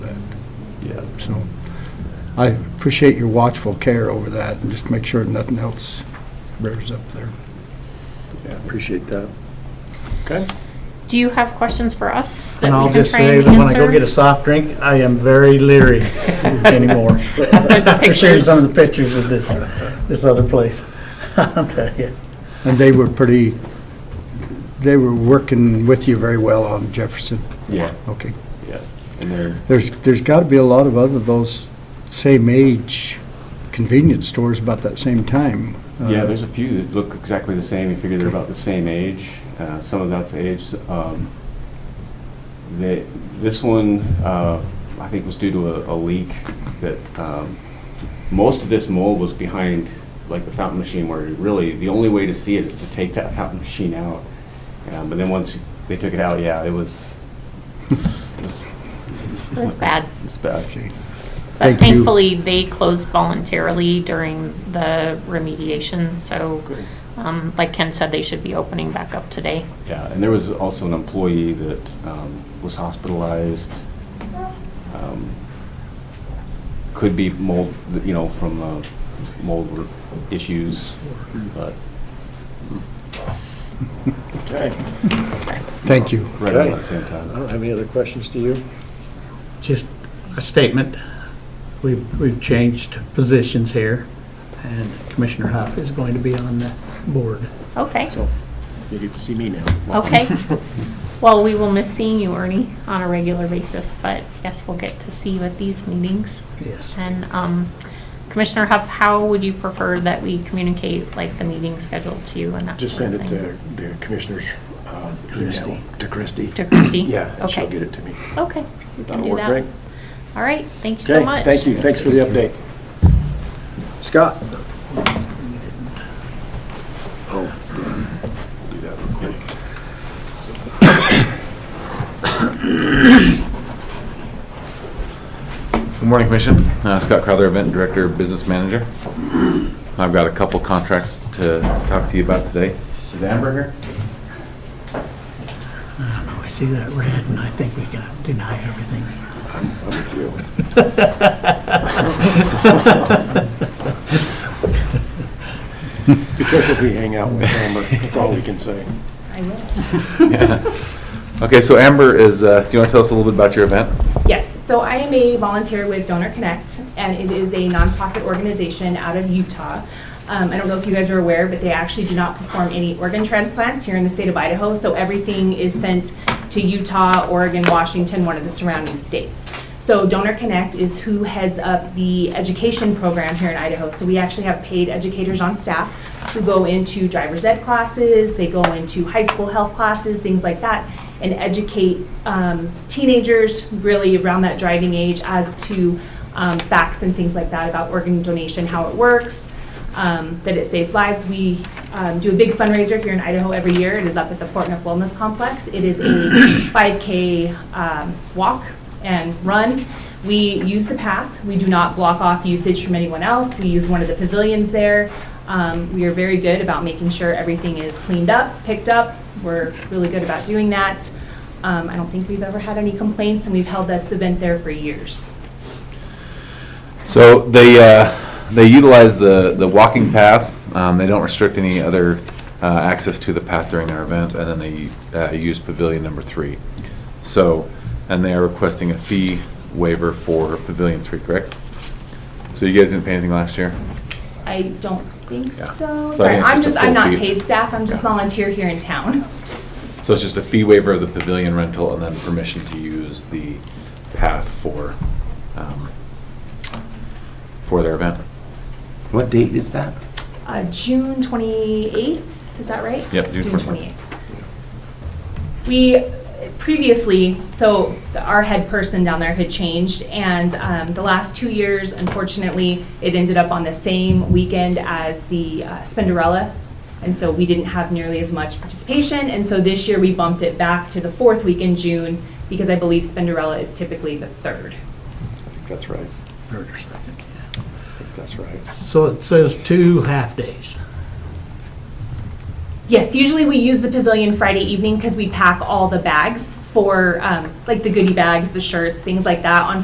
So I appreciate your watchful care over that and just make sure nothing else rears up there. Yeah, appreciate that. Okay. Do you have questions for us that And I'll we can just try say and that when I go answer? get a soft drink, I am very leery anymore. After the After seeing pictures. some of the pictures of this, this other place. I'll tell you. And they were pretty, they were working with you very well on Jefferson. Yeah, Okay. yeah. And they're, There's, there's got to be a lot of other those same age convenience stores about that same time. Yeah, Uh, there's a few that look exactly the same. You figure they're about the same age. Uh, some of that's age. Um, they, this one, uh, I think, was due to a, a leak that um, most of this mold was behind, like the fountain machine, where really the only way to see it is to take that fountain machine out. Um, but then once they took it out, yeah, it was. It was, It was bad. it was bad. But Thank you. thankfully, they closed voluntarily during the remediation, so, um, like Ken said, they should be opening back up today. Yeah, and there was also an employee that um, was hospitalized. um, Could be mold, you know, from uh, mold issues, but okay. Thank you. right around the same time. I don't have any other questions to you? Just a statement. We've, we've changed positions here and Commissioner Huff is going to be on the board. Okay, So you get to see me now. okay. Well, we will miss seeing you, Ernie, on a regular basis, but yes, we'll get to see you at these meetings. Yes. And um, Commissioner Huff, how would you prefer that we communicate, like, the meeting schedule to you and that Just sort send of it thing? to the commissioner's uh, email, to Christie. To Christie? Yeah, and she'll Okay. get it to me. Okay, we can That'll do work, that. right? All right, thank you so Okay, much. Thank you, thanks for the update. Scott? Oh, do that real quick. Good morning, Commission. Uh, Scott Crowther, Event Director, Business Manager. I've got a couple contracts to talk to you about today. Is Amber here? Oh, I see that red and I think we gotta deny everything. I'm with you. Be careful who you hang out with, Amber, that's all we can say. I will. Okay, so Amber is, uh, do you want to tell us a little bit about your event? Yes, so I am a volunteer with Donor Connect, and it is a nonprofit organization out of Utah. Um, I don't know if you guys are aware, but they actually do not perform any organ transplants here in the state of Idaho, so everything is sent to Utah, Oregon, Washington, one of the surrounding states. So Donor Connect is who heads up the education program here in Idaho. So we actually have paid educators on staff who go into driver's ed classes, they go into high school health classes, things like that, and educate um, teenagers really around that driving age as to um, facts and things like that about organ donation, how it works, um, that it saves lives. We um, do a big fundraiser here in Idaho every year. It is up at the Fort Neff Wellness Complex. It is a 5K um, walk and run. We use the path. We do not block off usage from anyone else. We use one of the pavilions there. Um, We are very good about making sure everything is cleaned up, picked up. We're really good about doing that. Um, I don't think we've ever had any complaints, and we've held this event there for years. So they, uh, they utilize the, the walking path. Um, They don't restrict any other uh, access to the path during their event, and then they uh, use pavilion number three. So, and they are requesting a fee waiver for pavilion three, correct? So you guys didn't pay anything last year? I don't think Yeah. so. So I Sorry, think I'm it's just, a I'm full not fee. paid staff, I'm just Yeah. volunteer here in town. So it's just a fee waiver of the pavilion rental and then permission to use the path for, um, for their event? What date is that? Uh, June 28th, is that right? Yep, June 28th. We previously, so the- our head person down there had changed, and um, the last two years, unfortunately, it ended up on the same weekend as the uh, Spenderella, and so we didn't have nearly as much participation, and so this year we bumped it back to the fourth week in June, because I believe Spenderella is typically the third. That's right, Third or second, yeah. I think that's right. So it says two half-days. Yes, usually we use the pavilion Friday evening because we pack all the bags for, um, like the goodie bags, the shirts, things like that on